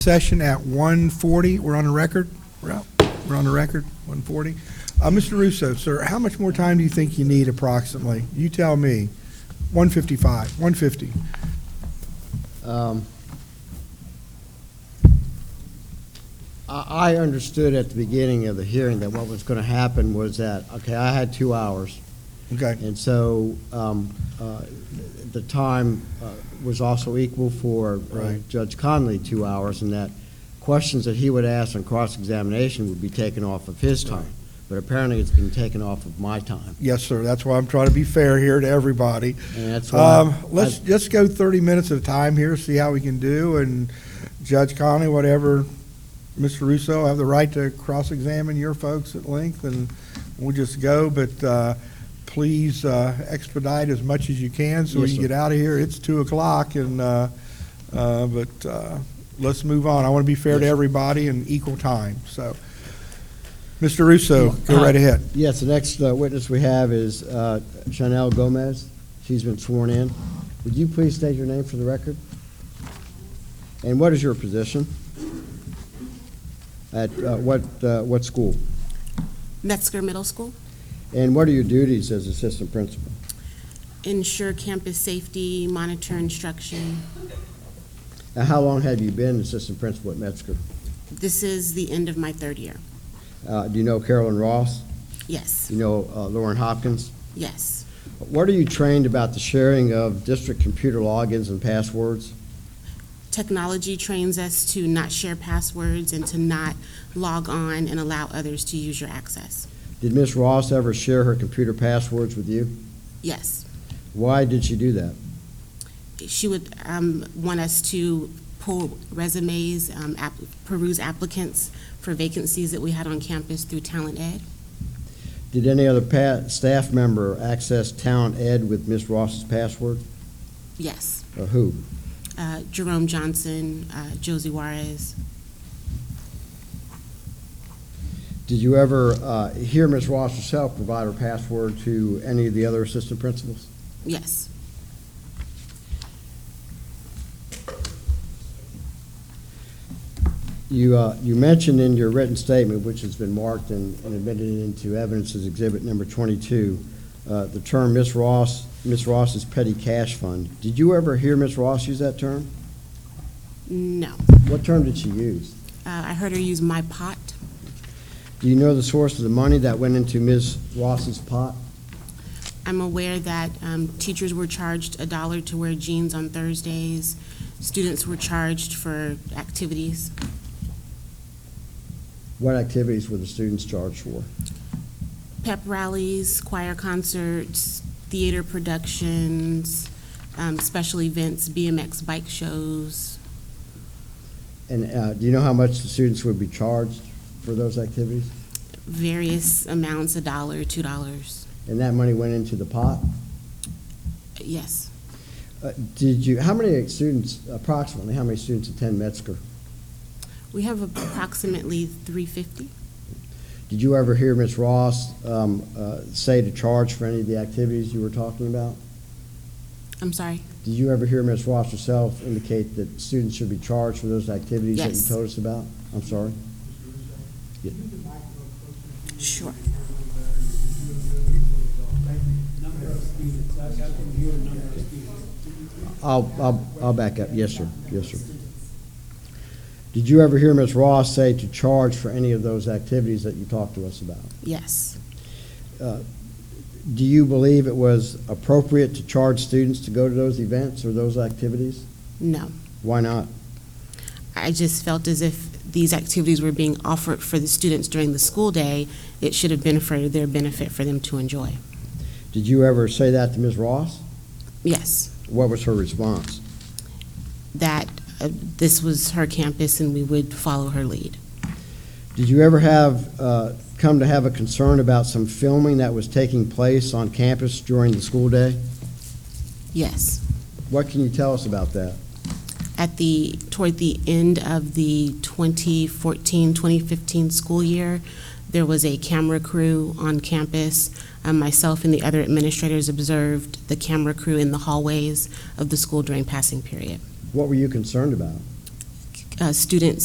session at 1:40. We're on a record? We're out. We're on a record, 1:40. Uh, Mr. Russo, sir, how much more time do you think you need approximately? You tell me. 155, 150. Um, I I understood at the beginning of the hearing that what was going to happen was that, okay, I had two hours, Okay, and so um, uh, the time uh, was also equal for uh, Right. Judge Conley, two hours, and that questions that he would ask on cross-examination would be taken off of his time, but apparently it's been taken off of my time, yes, sir, that's why I'm trying to be fair here to everybody. and that's why. Um, Let's, I- let's go 30 minutes of time here, see how we can do, and Judge Conley, whatever, Mr. Russo, have the right to cross-examine your folks at length, and we'll just go, but uh, please uh, expedite as much as you can so we Yes, can sir. get out of here. It's 2 o'clock, and, uh, uh, but uh, let's move on. I want to be fair to Yes, sir. everybody and equal time, so. Mr. Russo, Uh, go right ahead. Yes, the next uh, witness we have is uh, Chanel Gomez. She's been sworn in. Would you please state your name for the record? And what is your position? At uh, what, uh, what school? Metzger Middle School. And what are your duties as assistant principal? Ensure campus safety, monitor instruction. Now, how long have you been assistant principal at Metzger? This is the end of my third year. Uh, Do you know Carolyn Ross? Yes, Do you know uh, Lauren Hopkins? yes. What are you trained about the sharing of district computer logins and passwords? Technology trains us to not share passwords and to not log on and allow others to use your access. Did Ms. Ross ever share her computer passwords with you? Yes. Why did she do that? She would um, want us to pull resumes, um, app- peruse applicants for vacancies that we had on campus through Talent Ed. Did any other pa- staff member access Talent Ed with Ms. Ross's password? Yes. Or who? Uh, Jerome Johnson, uh, Josie Juarez. Did you ever uh, hear Ms. Ross herself provide her password to any of the other assistant principals? Yes. You, uh, you mentioned in your written statement, which has been marked and and admitted into evidence as exhibit number 22, uh, the term Ms. Ross, Ms. Ross's petty cash fund. Did you ever hear Ms. Ross use that term? No. What term did she use? Uh, I heard her use my pot. Do you know the source of the money that went into Ms. Ross's pot? I'm aware that um, teachers were charged a dollar to wear jeans on Thursdays. Students were charged for activities, What activities were the students charged for? pep rallies, choir concerts, theater productions, um, special events, BMX bike shows. And uh, do you know how much the students would be charged for those activities? Various amounts, a dollar, two dollars. And that money went into the pot? Yes, Uh, Did you, how many students, approximately, how many students attend Metzger? we have approximately 350. Did you ever hear Ms. Ross um, uh, say to charge for any of the activities you were talking about? I'm sorry. Did you ever hear Ms. Ross herself indicate that students should be charged for those activities that you Yes. told us about? I'm sorry? Sure. Number of students, I got from here, number of students. I'll, I'll, I'll back up. Yes, sir. Yes, sir. Did you ever hear Ms. Ross say to charge for any of those activities that you talked to us about? Yes, Do you believe it was appropriate to charge students to go to those events or those activities? no. Why not? I just felt as if these activities were being offered for the students during the school day. It should have been for their benefit for them to enjoy. Did you ever say that to Ms. Ross? Yes, What was her response? that uh, this was her campus and we would follow her lead. Did you ever have, uh, come to have a concern about some filming that was taking place on campus during the school day? Yes. What can you tell us about that? At the, toward the end of the 2014, 2015 school year, there was a camera crew on campus. Um, Myself and the other administrators observed the camera crew in the hallways of the school during passing period. What were you concerned about? uh, students